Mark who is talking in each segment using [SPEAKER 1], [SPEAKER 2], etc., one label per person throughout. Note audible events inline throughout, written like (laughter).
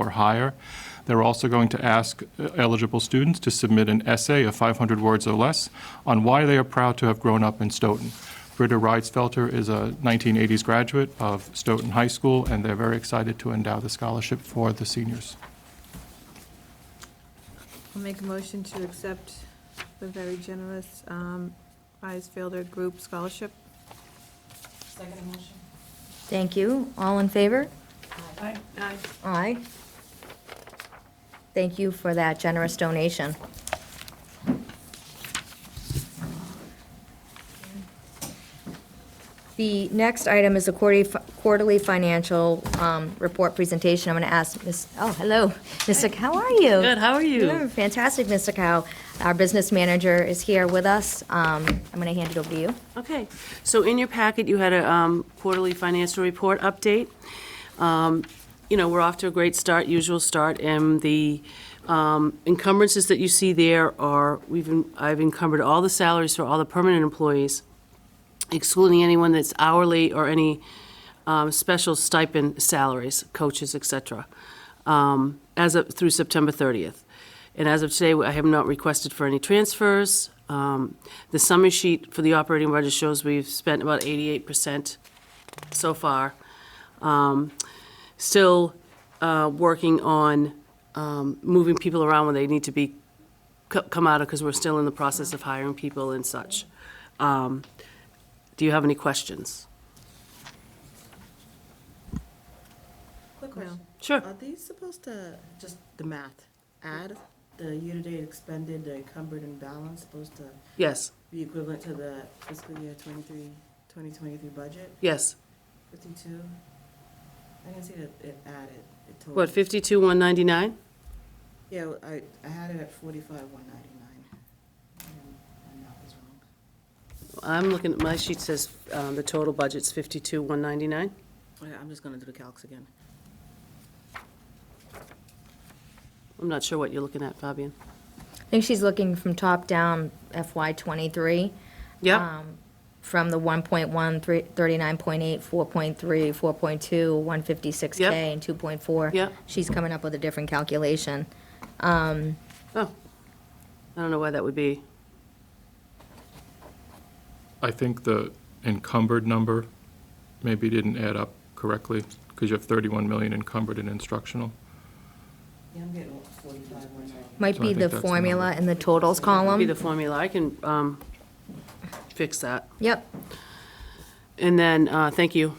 [SPEAKER 1] or higher. They're also going to ask uh, eligible students to submit an essay of 500 words or less on why they are proud to have grown up in Stoughton. Britta Reitzfelter is a 1980s graduate of Stoughton High School, and they're very excited to endow the scholarship for the seniors.
[SPEAKER 2] I'll make a motion to accept the very generous um, Isfielder Group Scholarship.
[SPEAKER 3] Second motion.
[SPEAKER 4] Thank you. All in favor?
[SPEAKER 3] Aye.
[SPEAKER 2] Aye.
[SPEAKER 4] Aye. Thank you for that generous donation. The next item is a quarterly quarterly financial um, report presentation. I'm going to ask Ms., oh, hello, (laughs) Mr. Cow, how are you?
[SPEAKER 3] Good, how are you?
[SPEAKER 4] You're Fantastic, Mr. Cow. Our business manager is here with us. Um, I'm going to hand it over to you.
[SPEAKER 3] Okay, so in your packet, you had a um, quarterly financial report update. Um, You know, we're off to a great start, usual start, and the um, encumbrances that you see there are, we've, en- I've encumbered all the salaries for all the permanent employees, excluding anyone that's hourly or any um, special stipend salaries, coaches, et cetera, um, as of, through September 30th. And as of today, I have not requested for any transfers. Um, The summary sheet for the operating budget shows we've spent about 88% so far. Um, Still uh, working on um, moving people around when they need to be, co- come out of, because we're still in the process of hiring people and such. Um, Do you have any questions?
[SPEAKER 5] Quick question.
[SPEAKER 3] Sure.
[SPEAKER 5] Are these supposed to, just the math, add the year-to-date expended, the encumbered and balance supposed to
[SPEAKER 3] Yes,
[SPEAKER 5] be equivalent to the fiscal year 23, 2023 budget,
[SPEAKER 3] yes.
[SPEAKER 5] 52? I didn't see that it added, it total.
[SPEAKER 3] What, 52,199?
[SPEAKER 5] Yeah, well, I, I had it at 45, 199. And and that was wrong.
[SPEAKER 3] I'm looking, at my sheet says um, the total budget's 52,199.
[SPEAKER 5] Okay, I'm just gonna do the calcs again.
[SPEAKER 3] I'm not sure what you're looking at, Fabian.
[SPEAKER 4] I think she's looking from top down FY '23.
[SPEAKER 3] Yep,
[SPEAKER 4] um, From the 1.1, three- 39.8, 4.3, 4.2, 156K,
[SPEAKER 3] Yep.
[SPEAKER 4] and 2.4.
[SPEAKER 3] Yep.
[SPEAKER 4] She's coming up with a different calculation.
[SPEAKER 3] oh. I don't know why that would be.
[SPEAKER 1] I think the encumbered number maybe didn't add up correctly, because you have 31 million encumbered in instructional.
[SPEAKER 5] Yeah, I'm getting 45, 199.
[SPEAKER 4] Might
[SPEAKER 1] So I
[SPEAKER 4] be
[SPEAKER 1] think
[SPEAKER 4] the
[SPEAKER 1] that's the
[SPEAKER 4] formula
[SPEAKER 1] number.
[SPEAKER 4] in the totals
[SPEAKER 3] Be
[SPEAKER 4] column.
[SPEAKER 3] the formula, I can um, fix that.
[SPEAKER 4] Yep,
[SPEAKER 3] And then, uh, thank you.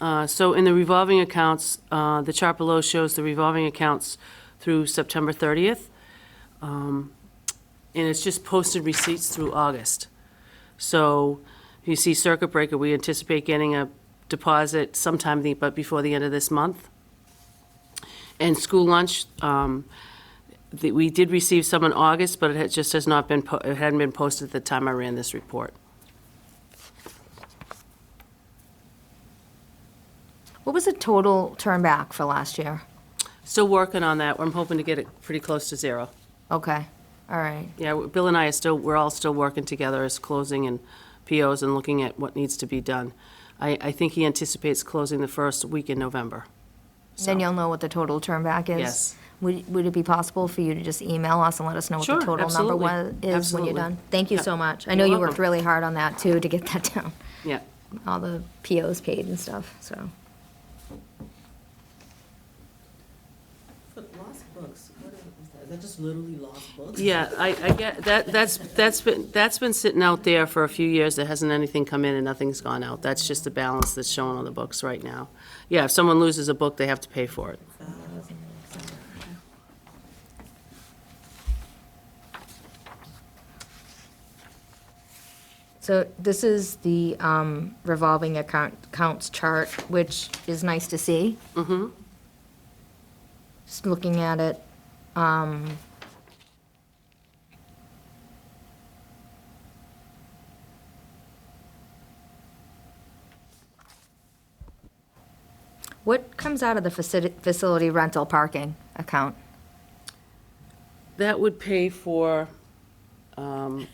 [SPEAKER 3] Uh, So in the revolving accounts, uh, the chart below shows the revolving accounts through September 30th. Um, And it's just posted receipts through August. So you see circuit breaker, we anticipate getting a deposit sometime, the- but before the end of this month. And school lunch, um, the- we did receive some in August, but it had- just has not been, po- it hadn't been posted at the time I ran this report.
[SPEAKER 4] what was the total turn back for last year?
[SPEAKER 3] Still working on that. I'm hoping to get it pretty close to zero.
[SPEAKER 4] Okay, all right,
[SPEAKER 3] Yeah, Bill and I are still, we're all still working together as closing and POs and looking at what needs to be done. I, I think he anticipates closing the first week in November.
[SPEAKER 4] then
[SPEAKER 3] So-
[SPEAKER 4] you'll know what the total turn back is?
[SPEAKER 3] Yes.
[SPEAKER 4] Would, would it be possible for you to just email us and let us know what the
[SPEAKER 3] Sure,
[SPEAKER 4] total number
[SPEAKER 3] absolutely,
[SPEAKER 4] was, is when
[SPEAKER 3] absolutely.
[SPEAKER 4] you're done? Thank you
[SPEAKER 3] Yeah,
[SPEAKER 4] so much. I
[SPEAKER 3] you're
[SPEAKER 4] know you worked
[SPEAKER 3] welcome.
[SPEAKER 4] really hard on that, too, to get that (laughs) down.
[SPEAKER 3] Yeah.
[SPEAKER 4] all the POs paid and stuff, so.
[SPEAKER 5] But lost books, what is is that? Is that just literally lost books?
[SPEAKER 3] Yeah, I, I get, that, that's, that's been, that's been sitting out there for a few years. There hasn't anything come in and nothing's gone out. That's just the balance that's shown on the books right now. Yeah, if someone loses a book, they have to pay for it.
[SPEAKER 4] So this is the um, revolving account, accounts chart, which is nice to see. Mm-hmm. Just looking at it, um. What comes out of the facility, facility rental parking account?
[SPEAKER 3] That would pay for um,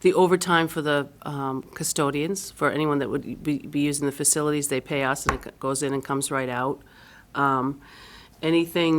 [SPEAKER 3] the overtime for the um, custodians, for anyone that would be be using the facilities. They pay us, and it goes in and comes right out. Um, anything